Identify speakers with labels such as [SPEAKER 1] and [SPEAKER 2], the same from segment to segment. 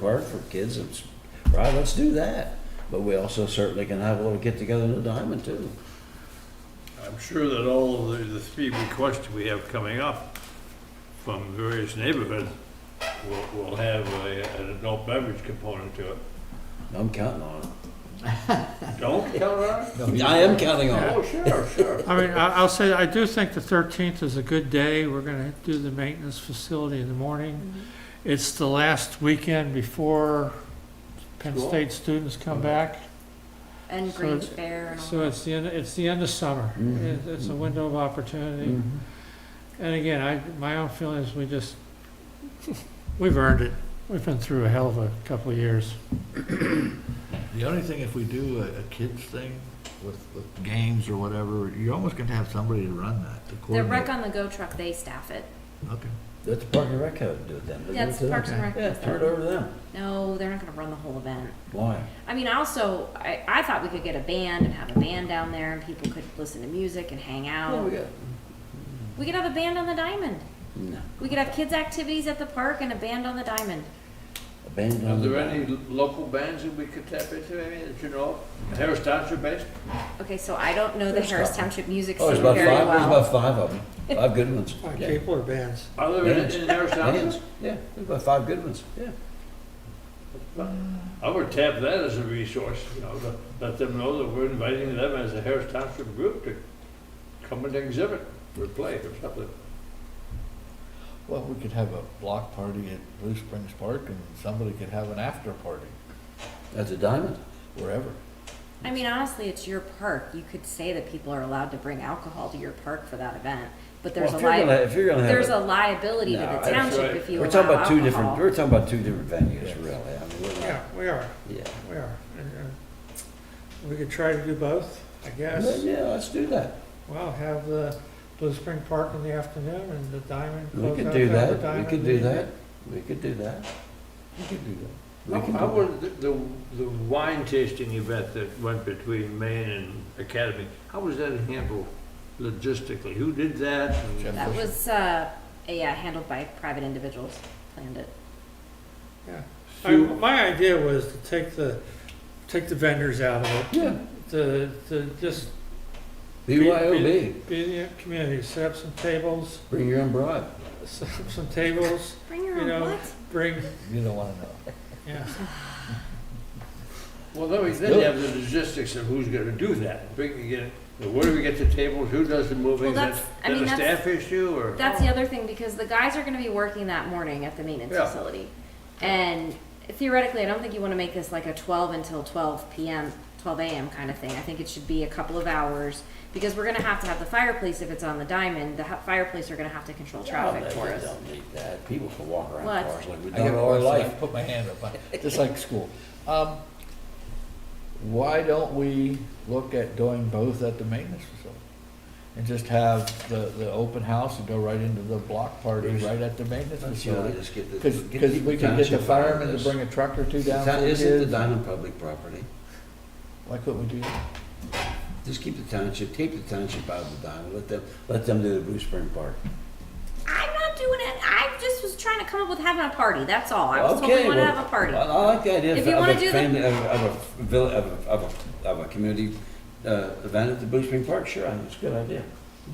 [SPEAKER 1] park for kids, it's, right, let's do that. But we also certainly can have a little get-together in the diamond too.
[SPEAKER 2] I'm sure that all of the, the three requests we have coming up from various neighborhoods will, will have a, an adult beverage component to it.
[SPEAKER 1] I'm counting on it.
[SPEAKER 2] Don't tell her?
[SPEAKER 1] I am counting on it.
[SPEAKER 2] Oh, sure, sure.
[SPEAKER 3] I mean, I- I'll say, I do think the 13th is a good day. We're going to do the maintenance facility in the morning.
[SPEAKER 4] Mm-hmm.
[SPEAKER 3] It's the last weekend before Penn
[SPEAKER 2] School.
[SPEAKER 3] State students come back.
[SPEAKER 4] And
[SPEAKER 3] So
[SPEAKER 4] Grange
[SPEAKER 3] it's-
[SPEAKER 4] Fair and all
[SPEAKER 3] So it's the end, it's the end of summer.
[SPEAKER 1] Mhm.
[SPEAKER 3] It- It's a window of opportunity.
[SPEAKER 1] Mhm.
[SPEAKER 3] And again, I, my own feeling is we just, we've earned it. We've been through a hell of a couple of years.
[SPEAKER 5] The only thing, if we do a, a kids thing with, with games or whatever, you're almost gonna have somebody to run that, to
[SPEAKER 4] The
[SPEAKER 5] coordinate.
[SPEAKER 4] Rec on the Go truck, they staff it.
[SPEAKER 5] Okay.
[SPEAKER 1] That's Park and Rec how to do it then. They give it
[SPEAKER 4] That's
[SPEAKER 1] to them.
[SPEAKER 4] Parks and Rec.
[SPEAKER 1] Yeah,
[SPEAKER 4] does
[SPEAKER 1] turn it
[SPEAKER 4] that.
[SPEAKER 1] over to them.
[SPEAKER 4] No, they're not gonna run the whole event.
[SPEAKER 1] Why?
[SPEAKER 4] I mean, also, I, I thought we could get a band and have a band down there and people could listen to music and hang
[SPEAKER 1] What we
[SPEAKER 4] out.
[SPEAKER 1] got?
[SPEAKER 4] We could have a band on the diamond.
[SPEAKER 1] No,
[SPEAKER 4] We could have kids' activities at the park and a band on the diamond.
[SPEAKER 1] a band
[SPEAKER 2] Are
[SPEAKER 1] on the
[SPEAKER 2] there any
[SPEAKER 1] diamond.
[SPEAKER 2] lo- local bands that we could tap into, I mean, that you know of? Harris Township based?
[SPEAKER 4] Okay, so I don't know the
[SPEAKER 1] There's
[SPEAKER 4] Harris
[SPEAKER 1] something.
[SPEAKER 4] Township music
[SPEAKER 1] Oh,
[SPEAKER 4] scene
[SPEAKER 1] there's about
[SPEAKER 4] very
[SPEAKER 1] five, there's
[SPEAKER 4] well.
[SPEAKER 1] about five of them. Five good ones. Yeah.
[SPEAKER 3] or bands?
[SPEAKER 2] Are there
[SPEAKER 1] Bands.
[SPEAKER 2] any in Harris
[SPEAKER 1] Bands,
[SPEAKER 2] Township?
[SPEAKER 1] yeah, there's about five good ones, yeah.
[SPEAKER 2] I would tap that as a resource, you know, to let them know that we're inviting them as a Harris Township group to come and exhibit or play or something.
[SPEAKER 5] Well, we could have a block party at Blue Springs Park and somebody could have an after party
[SPEAKER 1] That's a diamond.
[SPEAKER 5] wherever.
[SPEAKER 4] I mean, honestly, it's your park. You could say that people are allowed to bring alcohol to your park for that event, but there's
[SPEAKER 1] Well,
[SPEAKER 4] a
[SPEAKER 1] if you're gonna-
[SPEAKER 4] li,
[SPEAKER 1] If you're gonna have.
[SPEAKER 4] there's
[SPEAKER 1] it-
[SPEAKER 4] a liability to
[SPEAKER 1] No,
[SPEAKER 4] the
[SPEAKER 1] that's
[SPEAKER 4] township
[SPEAKER 2] right.
[SPEAKER 4] if you
[SPEAKER 1] We're
[SPEAKER 4] allow
[SPEAKER 1] talking
[SPEAKER 4] alcohol.
[SPEAKER 1] about two different, we're talking about two different venues, really. I mean, we're not-
[SPEAKER 3] Yeah, we are,
[SPEAKER 1] yeah.
[SPEAKER 3] we are. And, uh, We could try to do both, I
[SPEAKER 1] Well,
[SPEAKER 3] guess.
[SPEAKER 1] Yeah, let's do that.
[SPEAKER 3] Well, have the Blue Spring Park in the afternoon and the Diamond.
[SPEAKER 1] We
[SPEAKER 3] close
[SPEAKER 1] could
[SPEAKER 3] out
[SPEAKER 1] do
[SPEAKER 3] the
[SPEAKER 1] that, we
[SPEAKER 3] Diamond
[SPEAKER 1] could do
[SPEAKER 3] meeting.
[SPEAKER 1] that, we could do that, we could do that. We
[SPEAKER 2] How
[SPEAKER 1] can
[SPEAKER 2] how
[SPEAKER 1] do that.
[SPEAKER 2] was the, the the wine tasting event that went between Maine and Academy? How was that handled logistically? Who did that? and-
[SPEAKER 5] Jeff.
[SPEAKER 4] That was, uh, yeah, handled by private individuals, planned it.
[SPEAKER 3] I- My idea was to take the, take the vendors out of it,
[SPEAKER 1] Yeah,
[SPEAKER 3] to, to just
[SPEAKER 1] BYOB,
[SPEAKER 3] be in the community, set up some tables,
[SPEAKER 1] bring your own bribe.
[SPEAKER 3] set up some tables,
[SPEAKER 4] Bring your
[SPEAKER 3] You
[SPEAKER 4] own
[SPEAKER 3] know,
[SPEAKER 4] what?
[SPEAKER 3] bring,
[SPEAKER 5] You don't wanna know.
[SPEAKER 3] yeah.
[SPEAKER 2] Well, then we then you have the logistics of who's gonna do that. Bring, you get, where do we get the tables? Who does the moving?
[SPEAKER 4] Well,
[SPEAKER 2] Is that
[SPEAKER 4] that's- I mean,
[SPEAKER 2] that a
[SPEAKER 4] that's-
[SPEAKER 2] staff issue or?
[SPEAKER 4] That's
[SPEAKER 1] oh.
[SPEAKER 4] the other thing, because the guys are gonna be working that morning at the maintenance
[SPEAKER 2] Yeah.
[SPEAKER 4] facility. And theoretically, I don't think you wanna make this like a twelve until twelve PM, twelve AM kind of thing. I think it should be a couple of hours, because we're gonna have to have the fireplace if it's on the diamond, the ha- fireplace are gonna have to control traffic
[SPEAKER 1] They
[SPEAKER 4] for us.
[SPEAKER 1] Don't need that, people can walk around
[SPEAKER 4] What?
[SPEAKER 1] cars like we've
[SPEAKER 5] I
[SPEAKER 1] done
[SPEAKER 5] get
[SPEAKER 1] all our
[SPEAKER 5] bored, so I
[SPEAKER 1] life.
[SPEAKER 5] Put my hand up, I- just like school. Um, why don't we look at doing both at the maintenance facility? And just have the, the open house and go right into the block party right at the maintenance
[SPEAKER 1] Let's see, I'll
[SPEAKER 5] facility?
[SPEAKER 1] just get the-
[SPEAKER 5] Because,
[SPEAKER 1] get
[SPEAKER 5] because we could get the
[SPEAKER 1] township
[SPEAKER 5] firemen
[SPEAKER 1] on
[SPEAKER 5] to
[SPEAKER 1] this.
[SPEAKER 5] bring a truck or two down
[SPEAKER 1] Town-
[SPEAKER 5] for the
[SPEAKER 1] Isn't the
[SPEAKER 5] kids.
[SPEAKER 1] diamond public property?
[SPEAKER 5] Why couldn't we do that?
[SPEAKER 1] Just keep the township, keep the township out of the diamond, let them, let them do the Blue Spring Park.
[SPEAKER 4] I'm not doing it, I just was trying to come up with having a party, that's all. I was told we
[SPEAKER 1] Okay,
[SPEAKER 4] wanna
[SPEAKER 1] well,
[SPEAKER 4] have a party.
[SPEAKER 1] I I like the idea
[SPEAKER 4] If
[SPEAKER 1] of
[SPEAKER 4] you
[SPEAKER 1] of
[SPEAKER 4] wanna
[SPEAKER 1] a
[SPEAKER 4] do the-
[SPEAKER 1] family, of of a village, of a, of a, of a community uh, event at the Blue Spring Park, sure, I think it's a good idea.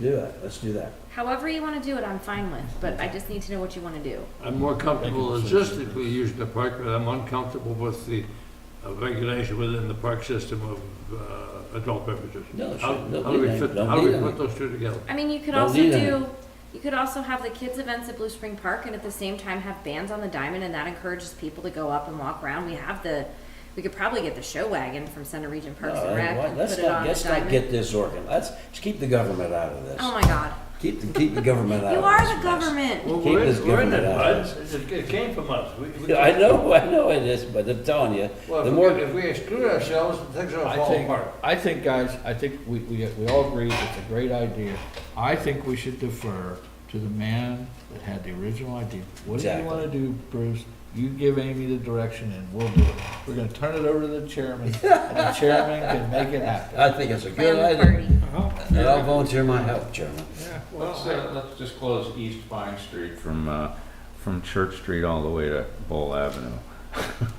[SPEAKER 1] Do that, let's do that.
[SPEAKER 4] However you wanna do it, I'm fine with, but I just need to know what you wanna do.
[SPEAKER 2] I'm more comfortable
[SPEAKER 5] Thank you.
[SPEAKER 2] logistically using the park, but I'm uncomfortable with the uh, regulation within the park system of uh, adult beverages.
[SPEAKER 1] No, it
[SPEAKER 2] How
[SPEAKER 1] shouldn't. Don't
[SPEAKER 2] how do we
[SPEAKER 1] need any.
[SPEAKER 2] fit,
[SPEAKER 1] Don't
[SPEAKER 2] how do
[SPEAKER 1] need
[SPEAKER 2] we put
[SPEAKER 1] any.
[SPEAKER 2] those two together?
[SPEAKER 4] I mean, you could
[SPEAKER 1] Don't
[SPEAKER 4] also
[SPEAKER 1] need any.
[SPEAKER 4] do, you could also have the kids' events at Blue Spring Park and at the same time have bands on the diamond and that encourages people to go up and walk around. We have the, we could probably get the show wagon from Center Region Parks
[SPEAKER 1] No,
[SPEAKER 4] and
[SPEAKER 1] I-
[SPEAKER 4] Rec
[SPEAKER 1] why-
[SPEAKER 4] and
[SPEAKER 1] Let's
[SPEAKER 4] put it
[SPEAKER 1] not,
[SPEAKER 4] on the
[SPEAKER 1] let's not
[SPEAKER 4] diamond.
[SPEAKER 1] get this organ, let's, let's keep the government out of
[SPEAKER 4] Oh
[SPEAKER 1] this.
[SPEAKER 4] my God.
[SPEAKER 1] Keep, the keep the government out
[SPEAKER 4] You
[SPEAKER 1] of
[SPEAKER 4] are
[SPEAKER 1] this
[SPEAKER 4] the
[SPEAKER 1] mess.
[SPEAKER 4] government.
[SPEAKER 2] Well,
[SPEAKER 1] Keep
[SPEAKER 2] we're in-
[SPEAKER 1] this
[SPEAKER 2] we're in
[SPEAKER 1] government
[SPEAKER 2] it,
[SPEAKER 1] out
[SPEAKER 2] bud.
[SPEAKER 1] of
[SPEAKER 2] It it came from us. We- we-
[SPEAKER 1] Yeah, I know, I know it is, but I'm telling you,
[SPEAKER 2] Well,
[SPEAKER 1] the
[SPEAKER 2] if we-
[SPEAKER 1] more,
[SPEAKER 2] if we exclude ourselves, things are gonna
[SPEAKER 5] I
[SPEAKER 2] fall
[SPEAKER 5] think,
[SPEAKER 2] apart.
[SPEAKER 5] I think, guys, I think we, we, we all agree it's a great idea. I think we should defer to the man that had the original idea. What do you
[SPEAKER 1] Exactly.
[SPEAKER 5] wanna do, Bruce? You give Amy the direction and we'll do it. We're gonna turn it over to the chairman, and the chairman can make it happen.
[SPEAKER 1] I think it's a good
[SPEAKER 4] Plan the
[SPEAKER 1] idea.
[SPEAKER 4] party.
[SPEAKER 3] Uh-huh.
[SPEAKER 1] And I'll volunteer my help, Chairman.
[SPEAKER 3] Yeah,
[SPEAKER 6] Let's,
[SPEAKER 3] well,
[SPEAKER 6] uh, let's just close East Pine Street from, uh, from Church Street all the way to Bull Avenue.